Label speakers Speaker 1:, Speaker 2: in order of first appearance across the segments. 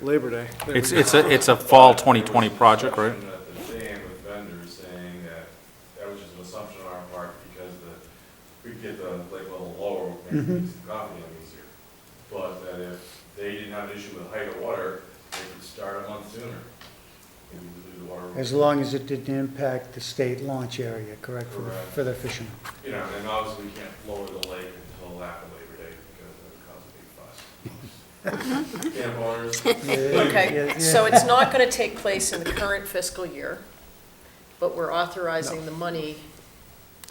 Speaker 1: Labor Day.
Speaker 2: It's, it's a, it's a fall 2020 project, right?
Speaker 3: Discussion At the stand with vendors saying that, that was just an assumption on our part because the, if we get the lake level lower, we can
Speaker 4: Mm-hmm.
Speaker 3: use the coffee on easier. But that if they didn't have an issue with height of water, they could start a month sooner. Maybe we leave the water-
Speaker 4: As long as it didn't impact the state launch area, correct, for the-
Speaker 3: Correct.
Speaker 4: for the fishermen?
Speaker 3: You know, and obviously we can't lower the lake until after Labor Day because it would cause a big fuss. Camp owners,
Speaker 4: Yeah,
Speaker 5: Okay,
Speaker 4: yeah,
Speaker 5: so
Speaker 4: yeah.
Speaker 5: it's not going to take place in the current fiscal year, but we're authorizing the money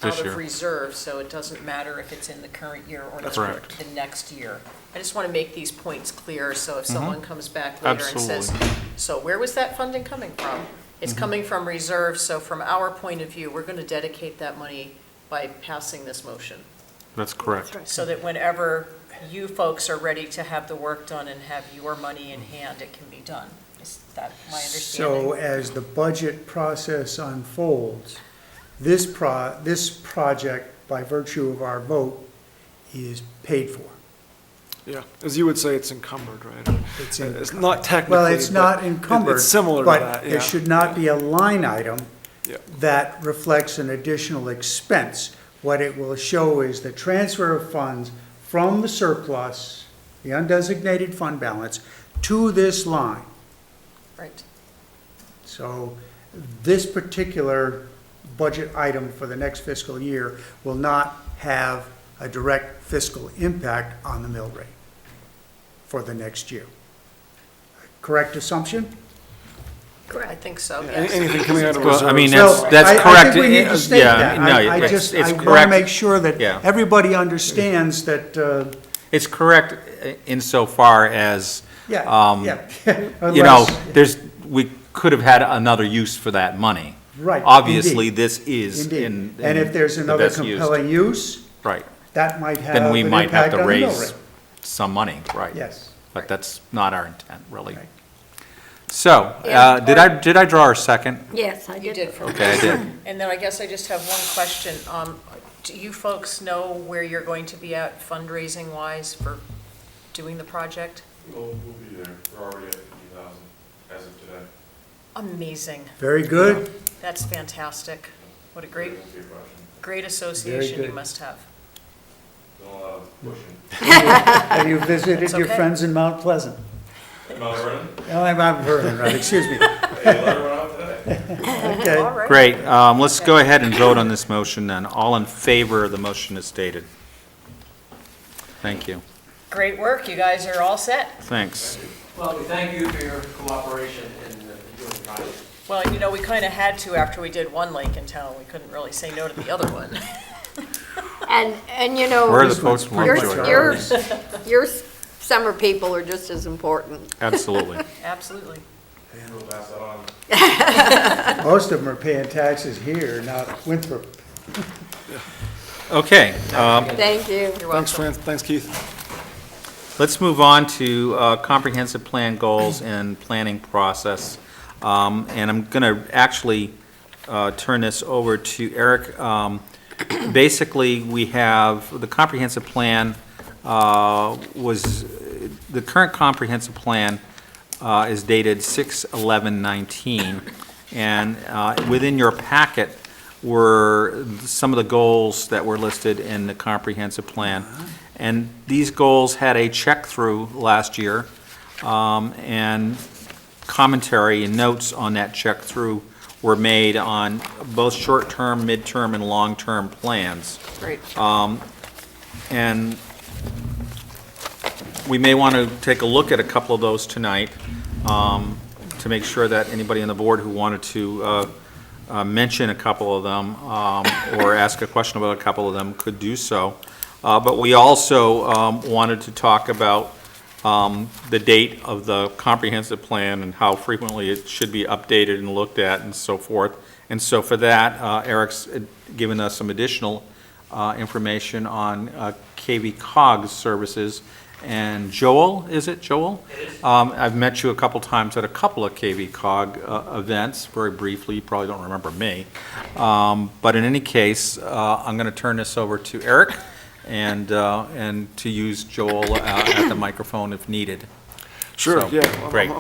Speaker 2: This
Speaker 5: out
Speaker 2: year.
Speaker 5: of reserve, so it doesn't matter if it's in the current year or not,
Speaker 2: That's correct.
Speaker 5: the next year. I just want to make these points clear, so if
Speaker 2: Mm-hmm.
Speaker 5: someone comes back later and says, so where was that funding coming from? It's
Speaker 2: Mm-hmm.
Speaker 5: coming from reserve, so from our point of view, we're going to dedicate that money by passing this motion.
Speaker 2: That's correct.
Speaker 5: So that whenever you folks are ready to have the work done and have your money in hand, it can be done. Is that my
Speaker 4: So
Speaker 5: understanding?
Speaker 4: as the budget process unfolds, this pro, this project, by virtue of our vote, is paid for.
Speaker 1: Yeah, as you would say, it's encumbered, right?
Speaker 4: It's in-
Speaker 1: It's not technically.
Speaker 4: Well, it's
Speaker 1: but
Speaker 4: not
Speaker 1: it-
Speaker 4: encumbered.
Speaker 1: It's similar to that,
Speaker 4: But
Speaker 1: yeah.
Speaker 4: there should not be a line item
Speaker 1: Yeah.
Speaker 4: that reflects an additional expense. What it will show is the transfer of funds from the surplus, the undesignated fund balance, to this line.
Speaker 5: Right.
Speaker 4: So this particular budget item for the next fiscal year will not have a direct fiscal impact on the mill rate for the next year. Correct assumption?
Speaker 5: Correct. I think so,
Speaker 1: Yeah,
Speaker 5: yes.
Speaker 1: any- Anything coming out of reserve.
Speaker 2: Well, I mean,
Speaker 4: So,
Speaker 2: that's, that's
Speaker 4: I-
Speaker 2: correct.
Speaker 4: I think we need
Speaker 2: Uh,
Speaker 4: to state
Speaker 2: yeah,
Speaker 4: that.
Speaker 2: no,
Speaker 4: I- I
Speaker 2: it's-
Speaker 4: just,
Speaker 2: it's
Speaker 4: I want to
Speaker 2: correct.
Speaker 4: make sure that
Speaker 2: Yeah.
Speaker 4: everybody understands that, uh,
Speaker 2: It's correct insofar as,
Speaker 4: yeah,
Speaker 2: Um,
Speaker 4: yeah.
Speaker 2: you know,
Speaker 4: Unless-
Speaker 2: there's, we could have had another use for that money.
Speaker 4: Right,
Speaker 2: Obviously,
Speaker 4: indeed.
Speaker 2: this is
Speaker 4: Indeed.
Speaker 2: in.
Speaker 4: And
Speaker 2: in
Speaker 4: if there's
Speaker 2: the
Speaker 4: another
Speaker 2: best use.
Speaker 4: compelling use,
Speaker 2: Right,
Speaker 4: that might have
Speaker 2: then
Speaker 4: an
Speaker 2: we might have
Speaker 4: impact
Speaker 2: to
Speaker 4: on the mill
Speaker 2: raise
Speaker 4: rate.
Speaker 2: some money, right?
Speaker 4: Yes.
Speaker 2: But that's not our intent, really.
Speaker 4: Right.
Speaker 2: So, uh,
Speaker 5: Yeah,
Speaker 2: did
Speaker 5: or-
Speaker 2: I, did I draw our second?
Speaker 6: Yes, I
Speaker 5: You
Speaker 6: did.
Speaker 5: did for me.
Speaker 2: Okay, I did.
Speaker 5: And then I guess I just have one question. Um, Do you folks know where you're going to be at fundraising wise for doing the project?
Speaker 3: we'll, we'll be there. We're already at fifty thousand as of today.
Speaker 5: Amazing.
Speaker 4: Very good.
Speaker 5: That's fantastic. What a great,
Speaker 3: That's your question.
Speaker 5: great association you
Speaker 4: good.
Speaker 5: must have.
Speaker 3: Don't allow uh, pushing.
Speaker 4: Have you visited
Speaker 5: It's
Speaker 4: your
Speaker 5: okay.
Speaker 4: friends in Mount Pleasant?
Speaker 3: Mount Vernon?
Speaker 4: Oh, I'm Mount Vernon, right, excuse me.
Speaker 3: Hey, let her run out today.
Speaker 4: Okay.
Speaker 5: All right.
Speaker 2: Great, um, let's go ahead and vote on this motion then. All in favor of the motion as stated? Thank you,
Speaker 5: Great work. You guys are all set.
Speaker 2: thanks.
Speaker 7: Well, we thank you for your cooperation in uh, doing the project.
Speaker 5: Well, you know, we kind of had to after we did one lake in town. We couldn't really say no to the other one.
Speaker 6: And, and you know.
Speaker 2: Where are the folks from
Speaker 6: Your,
Speaker 2: Lovejoy?
Speaker 6: your, your summer people are just as important.
Speaker 2: Absolutely.
Speaker 5: Absolutely.
Speaker 3: Hey, we'll pass that on.
Speaker 4: Most of them are paying taxes here, not Winthrop.
Speaker 2: Okay, um,
Speaker 6: Thank you.
Speaker 5: You're
Speaker 1: Thanks, Fran,
Speaker 5: welcome.
Speaker 1: thanks, Keith.
Speaker 2: let's move on to, uh, comprehensive plan goals and planning process. Um, and I'm gonna actually, uh, turn this over to Eric. Um, basically, we have, the comprehensive plan, uh, was, the current comprehensive plan, uh, is dated 6/11/19. And uh, within your packet were some of the goals that were listed in the comprehensive plan. And these goals had a check-through last year, um, and commentary and notes on that check-through were made on both short-term, mid-term, and long-term plans.
Speaker 5: Great.
Speaker 2: And we may want to take a look at a couple of those tonight um, to make sure that anybody on the board who wanted to uh, uh, mention a couple of them um, or ask a question about a couple of them could do so. Uh, But we also um, wanted to talk about um, the date of the comprehensive plan and how frequently it should be updated and looked at and so forth. And so for that, uh, Eric's uh, given us some additional uh, information on uh, KV Cog services. And Joel, is it Joel?
Speaker 7: It is.
Speaker 2: Um, I've met you a couple times at a couple of KV Cog uh, events, very briefly, you probably don't remember me. Um, But in any case, uh, I'm going to turn this over to Eric and, uh, and to use Joel uh, at the microphone if needed.
Speaker 1: Sure,
Speaker 2: So,
Speaker 1: yeah, I'm-
Speaker 2: great.
Speaker 1: I'm-